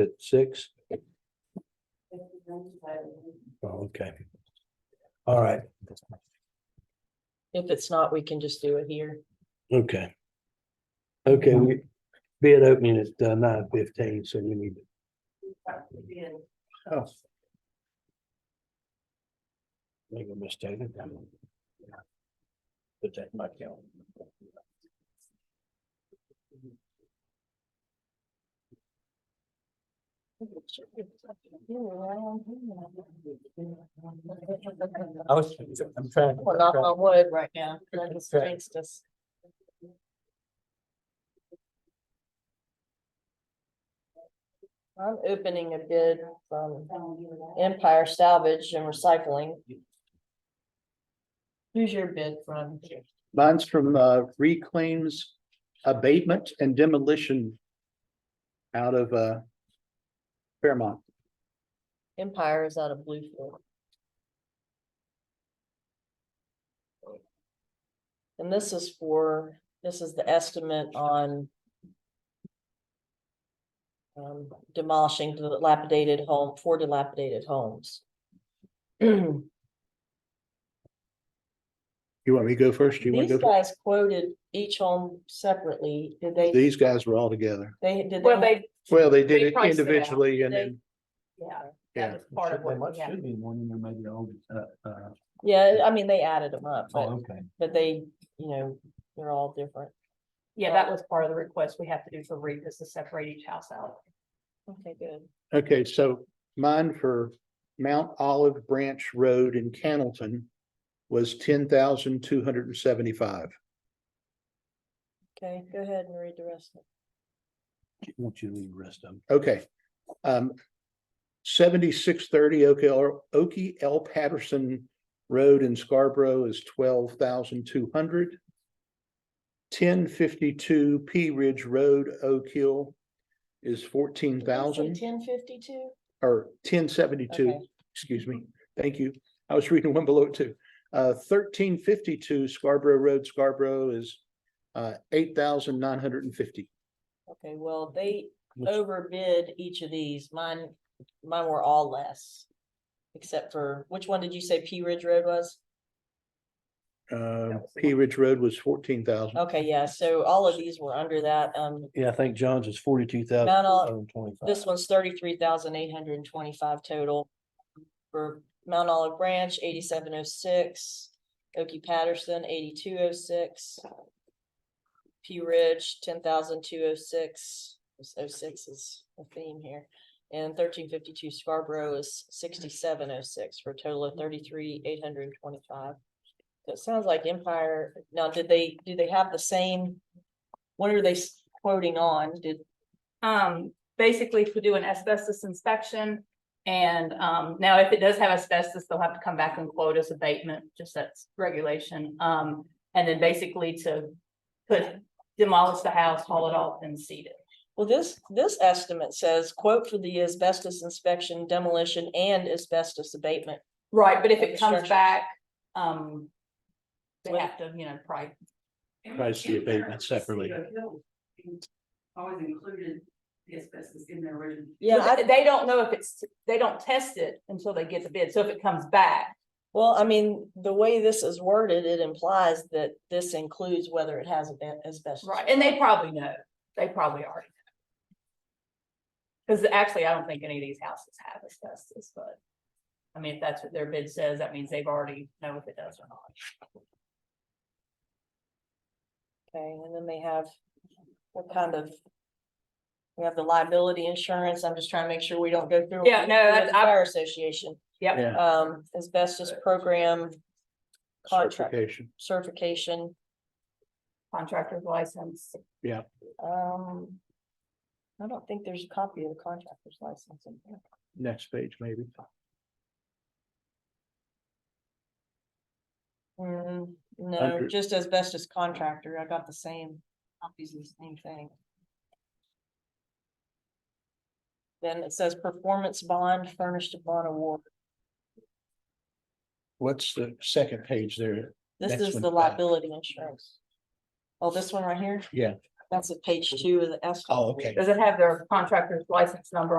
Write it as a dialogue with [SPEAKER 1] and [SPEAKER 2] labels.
[SPEAKER 1] At six? Oh, Okay. All right,
[SPEAKER 2] If it's not, we can just do it here.
[SPEAKER 1] okay. Okay, we, bid opening at uh, nine fifteen, so we need, oh. Make a mistake. Put that in my calendar.
[SPEAKER 3] I was, I'm trying.
[SPEAKER 2] We're not on wood right now. That just
[SPEAKER 3] Right.
[SPEAKER 2] jinxed us. I'm opening a bid from Empire Salvage and Recycling. Who's your bid from?
[SPEAKER 4] Mine's from uh, reclaims abatement and demolition out of uh, Fairmont.
[SPEAKER 2] Empire is out of Bluefield. And this is for, this is the estimate on um, demolishing dilapidated home, four dilapidated homes. These
[SPEAKER 4] You want me to go first? You want to go? first?
[SPEAKER 2] guys quoted each home separately. Did they,
[SPEAKER 4] These guys were all together.
[SPEAKER 2] they, did
[SPEAKER 5] Well,
[SPEAKER 2] they?
[SPEAKER 5] they,
[SPEAKER 4] Well, they did
[SPEAKER 5] We
[SPEAKER 4] it
[SPEAKER 5] priced it out.
[SPEAKER 4] individually and then,
[SPEAKER 5] yeah,
[SPEAKER 4] yeah.
[SPEAKER 5] that was part of what, yeah.
[SPEAKER 3] Should be one, you know, maybe old, uh, uh,
[SPEAKER 1] oh,
[SPEAKER 2] Yeah, I mean, they added them up,
[SPEAKER 3] oh,
[SPEAKER 2] but,
[SPEAKER 3] okay.
[SPEAKER 2] but they, you know, they're all different.
[SPEAKER 5] Yeah, that was part of the request we have to do for REAP is to separate each house out.
[SPEAKER 2] Okay, good.
[SPEAKER 4] Okay, so mine for Mount Olive Branch Road in Cannleton was ten thousand two hundred and seventy-five.
[SPEAKER 2] Okay, go ahead and read the rest. of
[SPEAKER 1] Won't you leave the rest of them?
[SPEAKER 4] Okay. Um, seventy-six thirty Okie L Patterson Road in Scarborough is twelve thousand two hundred. Ten fifty-two P Ridge Road, Oak Hill is fourteen thousand
[SPEAKER 2] Ten fifty-two?
[SPEAKER 4] or ten seventy-two,
[SPEAKER 2] Okay.
[SPEAKER 4] excuse me. Thank you. I was reading one below it too. Uh, thirteen fifty-two Scarborough Road, Scarborough is uh, eight thousand nine hundred and fifty.
[SPEAKER 2] Okay, well, they
[SPEAKER 1] Which-
[SPEAKER 2] overbid each of these. Mine, mine were all less. Except for, which one did you say P Ridge Road was?
[SPEAKER 4] Uh,
[SPEAKER 5] was the
[SPEAKER 4] P Ridge Road was fourteen thousand.
[SPEAKER 2] Okay, yeah, so all of these were under that. Um,
[SPEAKER 1] Yeah, I think John's is forty-two thousand.
[SPEAKER 2] Not all- this one's thirty-three thousand eight hundred and twenty-five total. For Mount Olive Branch, eighty-seven oh six, Oki Patterson, eighty-two oh six. P Ridge, ten thousand two oh six, oh six is a theme here. And thirteen fifty-two Scarborough is sixty-seven oh six for a total of thirty-three eight hundred and twenty-five. So It sounds like Empire, now did they, do they have the same? What are they s- quoting on? Did,
[SPEAKER 5] Um, basically to do an asbestos inspection. And, um, now if it does have asbestos, they'll have to come back and quote us abatement, just that's regulation. Um, and then basically to put, demolish the house, haul it off and seed it.
[SPEAKER 2] Well, this, this estimate says quote for the asbestos inspection demolition and asbestos abatement.
[SPEAKER 5] Right, but if
[SPEAKER 2] Of the
[SPEAKER 5] it
[SPEAKER 2] structures.
[SPEAKER 5] comes back, um, they
[SPEAKER 2] Well-
[SPEAKER 5] have to, you know, probably
[SPEAKER 1] Price the abatement separately.
[SPEAKER 6] Always included the asbestos in their original.
[SPEAKER 2] Yeah,
[SPEAKER 5] But
[SPEAKER 2] I,
[SPEAKER 5] They don't know if it's, they don't test it until they get the bid. So if it comes back,
[SPEAKER 2] well, I mean, the way this is worded, it implies that this includes whether it has a- asbestos.
[SPEAKER 5] right, and they probably know, they probably already know. Cause actually, I don't think any of these houses have asbestos, but. I mean, if that's what their bid says, that means they've already know if it does or not.
[SPEAKER 2] Okay, and then they have what kind of? We have the liability insurance. I'm just trying to make sure we don't go through. what
[SPEAKER 5] Yeah,
[SPEAKER 2] we
[SPEAKER 5] no,
[SPEAKER 2] do with
[SPEAKER 5] that's-
[SPEAKER 2] the
[SPEAKER 5] I-
[SPEAKER 2] Fire association,
[SPEAKER 5] Yep,
[SPEAKER 4] Yeah.
[SPEAKER 2] um, asbestos program contract
[SPEAKER 4] Certification.
[SPEAKER 2] certification,
[SPEAKER 5] contractor's license.
[SPEAKER 2] um. I don't think there's a copy of the contractor's license in here.
[SPEAKER 4] Next page, maybe.
[SPEAKER 2] Mm, no,
[SPEAKER 4] Under-
[SPEAKER 2] just as best as contractor, I got the same, copies of the same thing. Then it says performance bond furnished upon award.
[SPEAKER 4] What's the second page there?
[SPEAKER 2] This
[SPEAKER 4] Next
[SPEAKER 2] is
[SPEAKER 4] one's
[SPEAKER 2] the
[SPEAKER 4] back.
[SPEAKER 2] liability insurance. Oh, this one right here?
[SPEAKER 4] Yeah.
[SPEAKER 2] That's at page two of the estimate.
[SPEAKER 4] Oh, okay.
[SPEAKER 5] Does it have their contractor's license number on